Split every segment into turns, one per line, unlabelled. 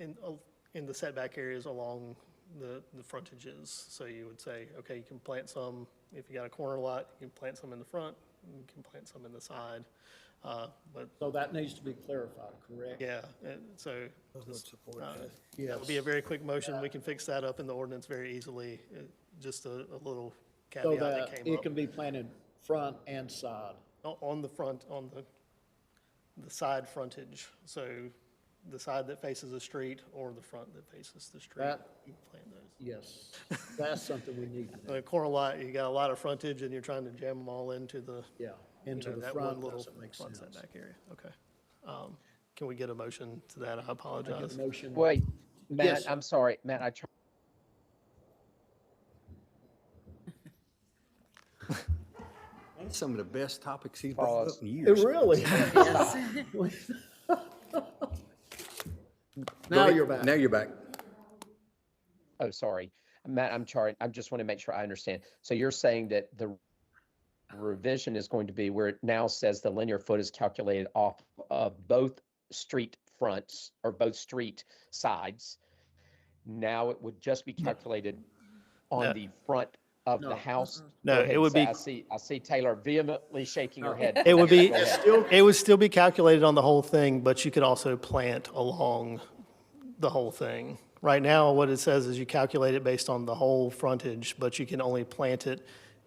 in, al- in the setback areas along the, the frontages. So you would say, okay, you can plant some, if you got a corner lot, you can plant some in the front, you can plant some in the side. Uh, But,
So that needs to be clarified, correct?
yeah, and so just, uh, that would be a
Yes.
very quick motion. We can fix that up in the ordinance very easily. Uh, Just a, a little
So
caveat that
that
came
it
up.
can be planted front and side.
O- On the front, on the, the side frontage, so the side that faces the street or the front that faces the street.
That-
you can plant those.
Yes, that's something we need to do,
The corner lot, you got a lot of frontage and you're trying to jam them all into the,
yeah.
you
Into
know,
the
that one
front,
little
doesn't make
front
sense.
setback area, okay. Um, Can we get a motion to that? I
Make a
apologize.
motion.
Wait,
Yes.
Matt, I'm sorry, Matt, I tried.
That's some of the best topics he's brought up
Pause.
in
It
years.
really. Now you're back.
Now you're back.
Oh, sorry. Matt, I'm sorry. I just want to make sure I understand. So you're saying that the revision is going to be where it now says the linear foot is calculated off of both street fronts or both street sides. Now it would just be calculated
No.
on the front of
No.
the house.
No,
Go ahead
it
and
would
say-
be-
I see, I see Taylor vehemently shaking her
No.
head.
It would be,
Go ahead.
it would still be calculated on the whole thing, but you could also plant along the whole thing. Right now, what it says is you calculate it based on the whole frontage, but you can only plant it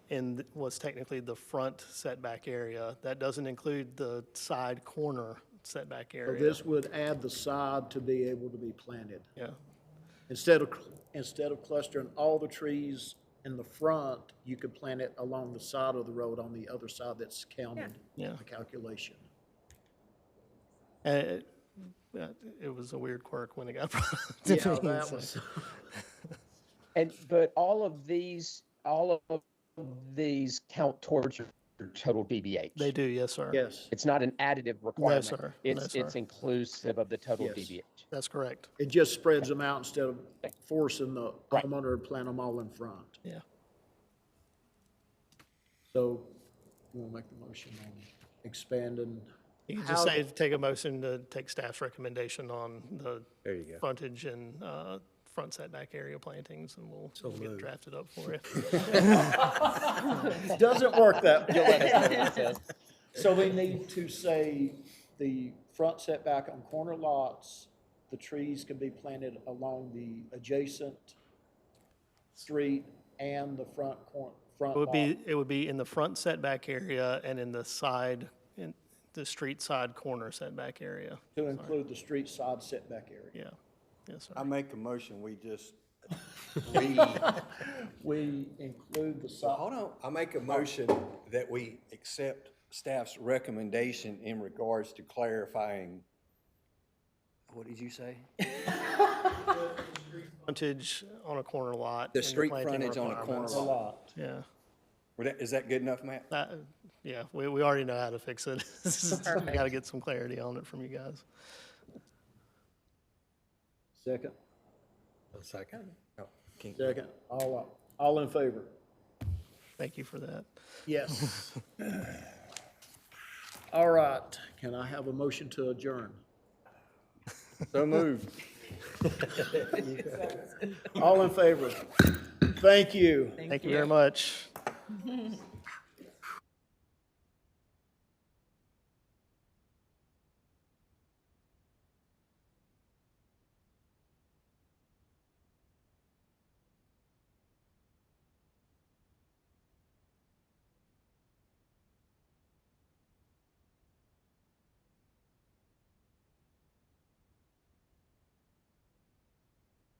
in what's technically the front setback area. That doesn't include the side corner setback
So
area.
This would add the side to be able to be planted.
Yeah,
Instead of, cl- instead of clustering all the trees in the front, you could plant it along the side of the road on the other side that's counted
yeah.
in the calculation.
And it, yeah, Uh, it was a weird quirk when it got brought up to
Yeah,
me.
that
so-
was,
And, but all of these, all of these count towards your total DBH.
They do, yes, sir.
yes,
It's not an additive requirement.
sir. No,
It's, it's
sir.
inclusive of the total
Yes.
DBH.
That's correct,
it just spreads them out instead of forcing the homeowner to plant them all in front.
yeah.
So you want to make the motion on expanding?
You can
How-
just say, take a motion to take staff's recommendation on the
There you go.
frontage and uh, front setback area plantings, and we'll we'll get
moved.
drafted up for you.
It Doesn't work that
You'll
way.
let us know what it says.
So we need to say the front setback on corner lots, the trees can be planted along the adjacent street and the front cor, front
It would
lot.
be, it would be in the front setback area and in the side, in the street side corner setback area.
To include the street side setback area.
Yeah, yes,
I
sir.
make a motion, we just,
We include the
hold
side,
on, I make a motion that we accept staff's recommendation in regards to clarifying, what did you say?
Frontage on a corner lot.
The
and
street
planting
frontage on a corner
requirements.
the
lot.
lot.
Yeah,
Were that- Is that good enough, Matt?
That- Uh, yeah, we, we already know how to fix it. We got to get some clarity on it from you guys.
Second,
Second.
No, can't.
second, all, all in favor?
Thank you for that.
Yes. All right, can I have a motion to adjourn?
So moved.
All in favor? Thank you.
Thank you very much.